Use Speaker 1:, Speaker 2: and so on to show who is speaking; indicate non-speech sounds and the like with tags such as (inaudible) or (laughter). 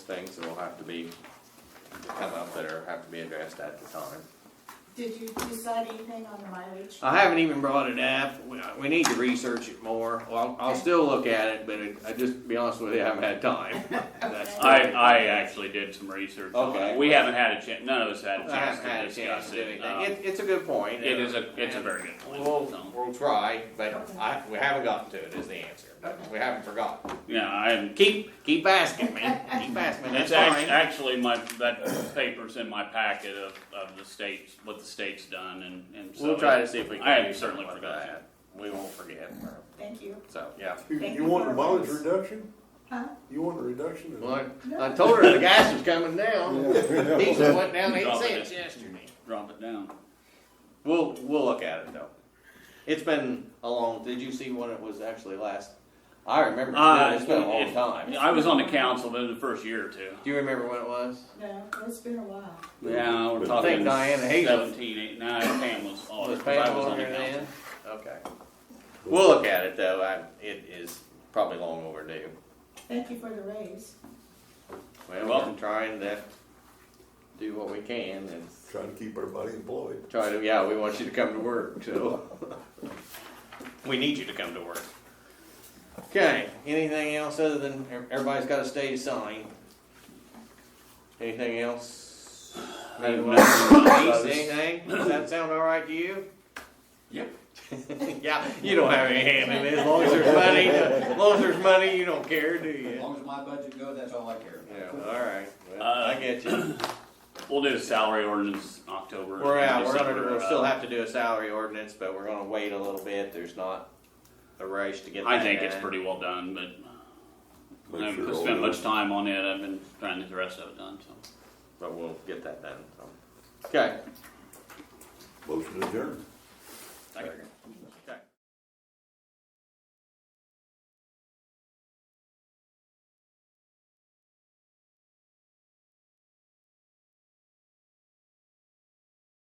Speaker 1: things that will have to be, come up that are, have to be addressed at the time.
Speaker 2: Did you decide anything on the mileage?
Speaker 1: I haven't even brought it up. We, we need to research it more. Well, I'll, I'll still look at it, but it, I just, to be honest with you, I haven't had
Speaker 3: (laughs)
Speaker 1: time. That's-
Speaker 3: I, I actually did some research on
Speaker 1: Okay.
Speaker 3: it. We haven't had a chance, none of us had a
Speaker 1: I
Speaker 3: chance
Speaker 1: haven't had
Speaker 3: to
Speaker 1: a chance
Speaker 3: discuss
Speaker 1: to do
Speaker 3: it.
Speaker 1: anything.
Speaker 3: Um,
Speaker 1: It, it's a good point.
Speaker 3: It is a, it's a very good point.
Speaker 1: We'll,
Speaker 3: so.
Speaker 1: we'll try, but I, we haven't gotten to it is the answer. But we haven't forgotten.
Speaker 3: Yeah, I'm,
Speaker 1: Keep, keep asking, man. Keep asking. That's
Speaker 3: it's act-
Speaker 1: fine.
Speaker 3: actually my, that paper's in my packet of, of the states, what the state's done and, and so.
Speaker 1: We'll try to see if we can.
Speaker 3: I
Speaker 1: do
Speaker 3: have certainly
Speaker 1: something
Speaker 3: forgotten.
Speaker 1: about that. We won't forget.
Speaker 2: Thank you.
Speaker 1: So, yeah.
Speaker 4: You,
Speaker 2: Thank
Speaker 4: you
Speaker 2: you
Speaker 4: want
Speaker 2: for
Speaker 4: the mileage
Speaker 2: this.
Speaker 4: reduction?
Speaker 2: Huh?
Speaker 4: You want a reduction? in-
Speaker 1: Well, I I told her the gas was coming down. (laughs)
Speaker 4: Yeah.
Speaker 1: Diesel went down eight
Speaker 3: Dropping
Speaker 1: cents
Speaker 3: it.
Speaker 1: yesterday.
Speaker 3: Drop it down.
Speaker 1: We'll, we'll look at it though. It's been a long, did you see when it was actually last? I remember,
Speaker 3: Uh,
Speaker 1: it's been a long
Speaker 3: it-
Speaker 1: time.
Speaker 3: I was on the council in the first year or two.
Speaker 1: Do you remember when it was?
Speaker 2: No, it's been a while.
Speaker 3: Yeah, we're
Speaker 4: I
Speaker 3: talking
Speaker 1: think Diana Hazel-
Speaker 3: seventeen, eight, nine, Pam was on Oh, it,
Speaker 1: Was
Speaker 3: 'cause I
Speaker 1: Pam
Speaker 3: was on
Speaker 1: on
Speaker 3: the
Speaker 1: there
Speaker 3: council.
Speaker 1: then? Okay. We'll look at it though, I, it is probably long overdue.
Speaker 2: Thank you for the raise.
Speaker 3: You're
Speaker 1: Well,
Speaker 3: welcome.
Speaker 1: we're trying to do what we can and
Speaker 4: Trying to keep everybody employed.
Speaker 1: try to, yeah, we want you to come to work, so. We need you to come to work. Okay, anything else other than, ev- everybody's got a state sign? Anything else?
Speaker 3: I have
Speaker 1: Anyone
Speaker 3: nothing.
Speaker 1: else? Anything? Does that sound all right to you?
Speaker 3: Yep.
Speaker 1: (laughs) Yeah, you don't have any hand in it, as long as there's money, as long as there's money, you don't care, do
Speaker 5: As
Speaker 1: you?
Speaker 5: long as my budget goes, that's all I care about.
Speaker 1: Yeah, all right, well, I
Speaker 3: Uh,
Speaker 1: get you.
Speaker 3: We'll do the salary ordinance in October.
Speaker 1: We're out, we're gonna,
Speaker 3: December,
Speaker 1: we'll
Speaker 3: uh,
Speaker 1: still have to do a salary ordinance, but we're gonna wait a little bit, there's not a rush to get that
Speaker 3: I think it's
Speaker 1: done.
Speaker 3: pretty well done, but I
Speaker 4: Make
Speaker 3: haven't
Speaker 4: sure all
Speaker 3: spent much
Speaker 4: those-
Speaker 3: time on it. I've been trying to get the rest of it done, so.
Speaker 1: but we'll get that done. so. Okay.
Speaker 4: Motion adjourned.
Speaker 3: Second.